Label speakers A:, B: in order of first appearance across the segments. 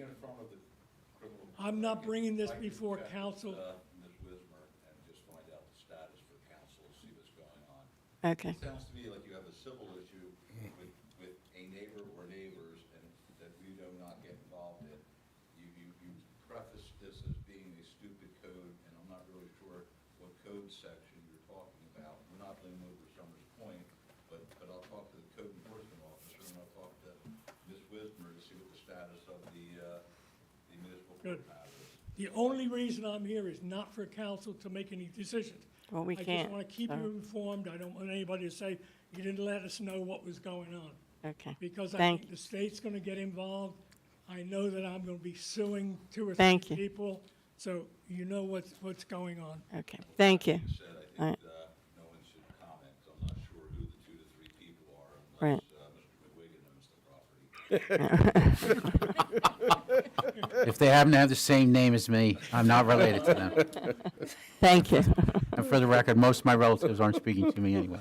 A: of the criminal.
B: I'm not bringing this
A: I can
B: before
A: check with,
B: council.
A: uh, Ms. Wismer, and just find out the status for council, see what's going on.
C: Okay,
A: It sounds to me like you have a civil issue with, with a neighbor or neighbors, and that we do not get involved in. You, you, you preface this as being a stupid code, and I'm not really sure what code section you're talking about. We're not laying over Summers Point, but, but I'll talk to the code enforcement officer, and I'll talk to Ms. Wismer to see what the status of the, uh, the municipal court
B: Good.
A: matter is.
B: The only reason I'm here is not for council to make any decisions.
C: Well, we
B: I
C: can't,
B: just want to keep
C: so-
B: you informed. I don't want anybody to say, you didn't let us know what was going on.
C: okay.
B: Because I
C: Thank
B: think the state's going to get involved. I know that I'm going to be suing two or three
C: Thank you.
B: people. So you know what's, what's going on.
C: Okay, thank you.
A: That being said, I
C: All right.
A: think, uh, no one should comment, 'cause I'm not sure who the two to three people are
C: Right.
A: unless, uh, Mr. McWiggin owns the property.
D: If they happen to have the same name as me, I'm not related to them.
C: Thank you.
D: And for the record, most of my relatives aren't speaking to me anyway.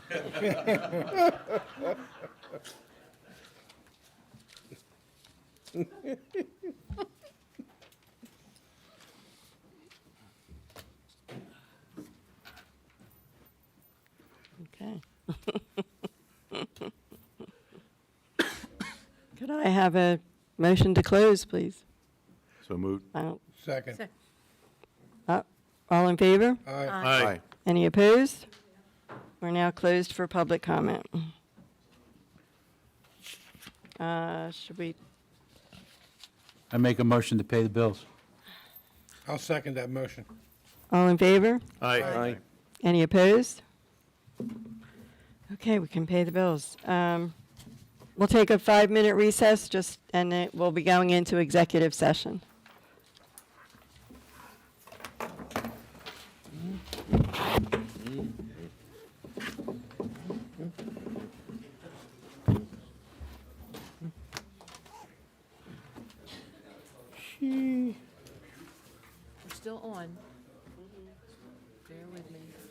C: Okay. Could I have a motion to close, please?
E: So moved.
C: I don't-
F: Second.
C: uh, All in favor?
F: Aye.
E: Aye.
C: Any opposed? We're now closed for public comment. Uh, Should we,
D: I make a motion to pay the bills.
F: I'll second that motion.
C: all in favor?
E: Aye.
C: Any opposed? Okay, we can pay the bills. Um, We'll take a five-minute recess, just, and then we'll be going into executive session.
G: We're still on. Bear with me.